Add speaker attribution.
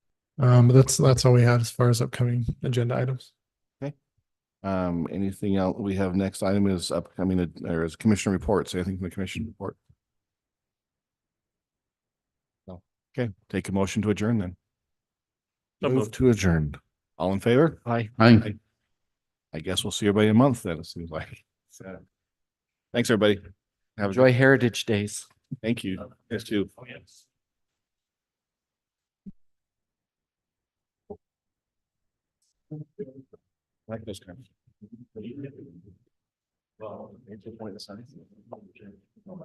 Speaker 1: Um, but that's, that's all we had as far as upcoming agenda items.
Speaker 2: Um, anything else we have next item is upcoming, uh, or is commission reports, anything from the commission report? No, okay, take a motion to adjourn then.
Speaker 3: So
Speaker 2: Move
Speaker 3: moved.
Speaker 2: to adjourn. All in favor? Aye.
Speaker 4: Aye.
Speaker 2: I guess we'll see everybody in a month then, it seems like. So, Thanks, everybody. Have a
Speaker 4: Enjoy Heritage Days.
Speaker 2: Thank you. Yes, too.
Speaker 3: Oh, yes.
Speaker 2: Like those kind of.
Speaker 3: Well, it's a point of science.